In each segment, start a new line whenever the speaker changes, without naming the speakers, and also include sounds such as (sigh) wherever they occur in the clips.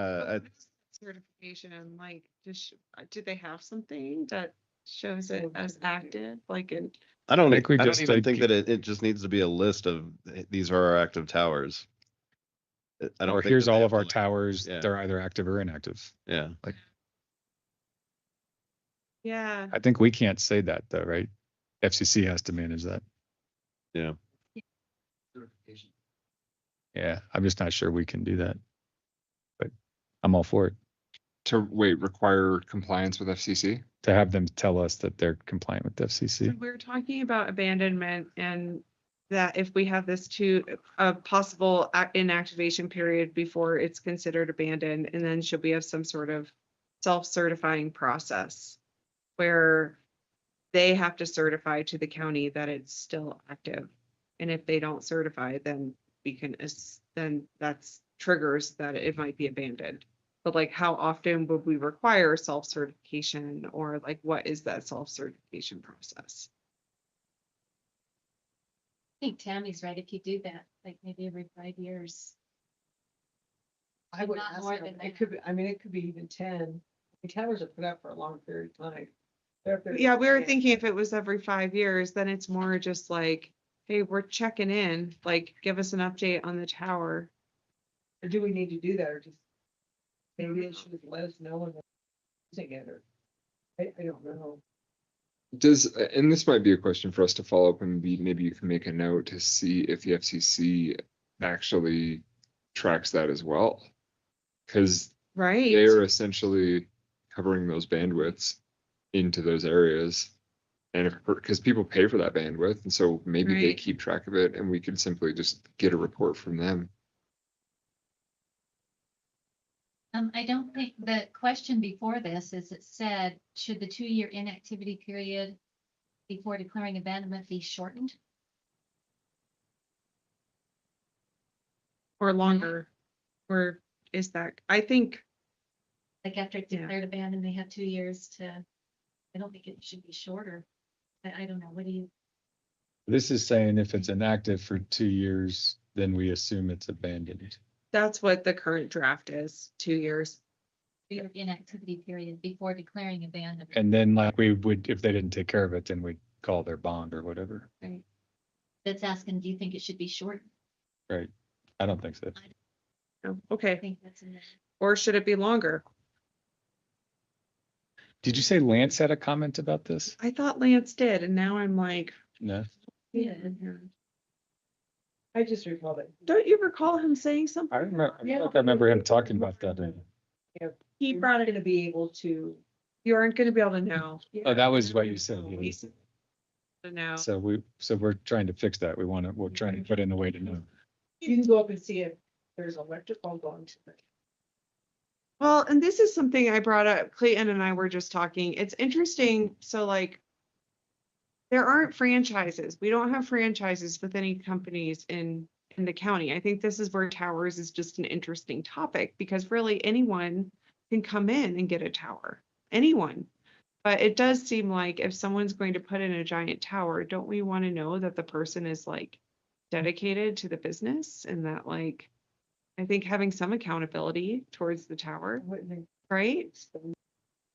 Uh, I-
certification, like, just, did they have something that shows it as active, like in?
I don't,
think we
I don't
just
even
like
think
keep-
that it, it just needs to be a list of, eh, these are our active towers. Eh, I don't.
Or
think
here's
that they
all
have
of
to,
our
like-
towers,
yeah.
they're either active or inactive.
Yeah,
Yeah,
I think we can't say that though, right? FCC has to manage that.
Yeah.
Yeah, I'm just not sure we can do that. But I'm all for it,
to wait, require compliance with FCC?
to have them tell us that they're compliant with
so
FCC.
we're talking about abandonment and that if we have this to, a possible ac- inactivation period before it's considered abandoned, and then should we have some sort of self-certifying process where they have to certify to the county that it's still active? And if they don't certify, then we can, as- then that's triggers that it might be abandoned. But like, how often would we require self-certification or like, what is that self-certification process?
I think Tammy's right, if you do that, like maybe every five years.
I would
Not
ask
more
them.
than
It
that.
could be, I mean, it could be even ten. The towers are put up for a long period of time. They're up there-
Yeah, we were
Yeah.
thinking if it was every five years, then it's more just like, hey, we're checking in, like, give us an update on the tower.
Or do we need to do that or just? Maybe it should let us know when they're using it or, I, I don't know.
Does, and this might be a question for us to follow up and be, maybe you can make a note to see if the FCC actually tracks that as well. Cause
Right.
they're essentially covering those bandwidths into those areas. And if, because people pay for that bandwidth, and so maybe they
Right.
keep track of it and we could simply just get a report from them.
Um, I don't think, the question before this is it said, should the two-year inactivity period before declaring abandonment be shortened?
Or longer, or is that, I think,
Like after it's
Yeah.
declared abandoned, they have two years to, I don't think it should be shorter. I, I don't know, what do you,
This is saying if it's inactive for two years, then we assume it's abandoned.
that's what the current draft is, two years.
your inactivity period before declaring abandonment?
And then like we would, if they didn't take care of it, then we'd call their bond or whatever.
That's asking, do you think it should be short?
I don't think so.
Oh,
I
Okay,
think that's in there.
or should it be longer?
Did you say Lance had a comment about this?
I thought Lance did, and now I'm like.
No?
Yeah.
I just recall that.
Don't you recall him saying something?
I remember, I
Yeah.
feel like I remember him talking about that.
He
You're
brought
not
it,
gonna be able to.
you aren't gonna be able to know,
Oh, that was what you said.
Oh,
yeah.
we said- to know.
So we, so we're trying to fix that. We want to, we're trying to put in a way to know.
You can go up and see if there's electrical going to it.
Well, and this is something I brought up, Clayton and I were just talking. It's interesting, so like. There aren't franchises. We don't have franchises with any companies in in the county. I think this is where towers is just an interesting topic because really anyone can come in and get a tower. Anyone. But it does seem like if someone's going to put in a giant tower, don't we want to know that the person is like dedicated to the business and that like I think having some accountability towards the tower,
Wouldn't it
right?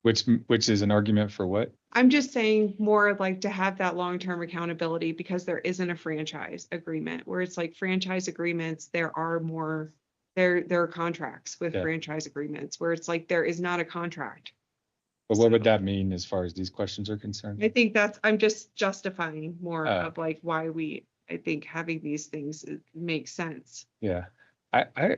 Which, which is an argument for what?
I'm just saying more of like to have that long-term accountability because there isn't a franchise agreement where it's like franchise agreements, there are more. There, there are contracts with
Yeah.
franchise agreements where it's like there is not a contract.
But what would that mean as far as these questions are concerned?
I think that's, I'm just justifying more
Uh.
Oh.
of like why we, I think having these things uh, makes sense.
Yeah, I, I,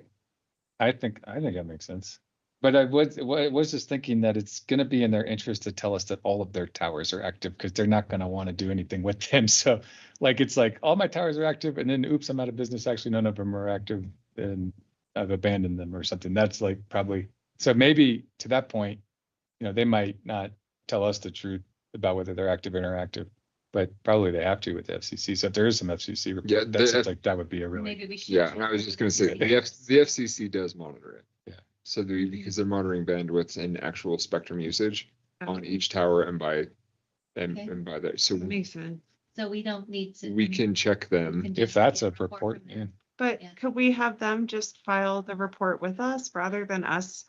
I think, I think that makes sense. But I was, wa- I was just thinking that it's gonna be in their interest to tell us that all of their towers are active because they're not gonna want to do anything with them. (laughs) So like, it's like, all my towers are active and then oops, I'm out of business. Actually, none of them are active and I've abandoned them or something. That's like probably, so maybe to that point, you know, they might not tell us the truth about whether they're active or interactive, but probably they have to with the FCC. So if there is some FCC
Yeah,
report,
the
that seems
F-
like that would be a really.
Maybe we should.
Yeah, and I was just gonna say, the
Yeah.
F, the FCC does monitor it.
Yeah.
So they, because they're monitoring bandwidths and actual spectrum usage
Um,
on each tower and by, and,
Okay.
and by that, so we
Makes sense.
So we don't need to.
we can check them.
can
If
just
that's
get
a report,
from them.
yeah.
But
Yeah.
could we have them just file the report with us rather than us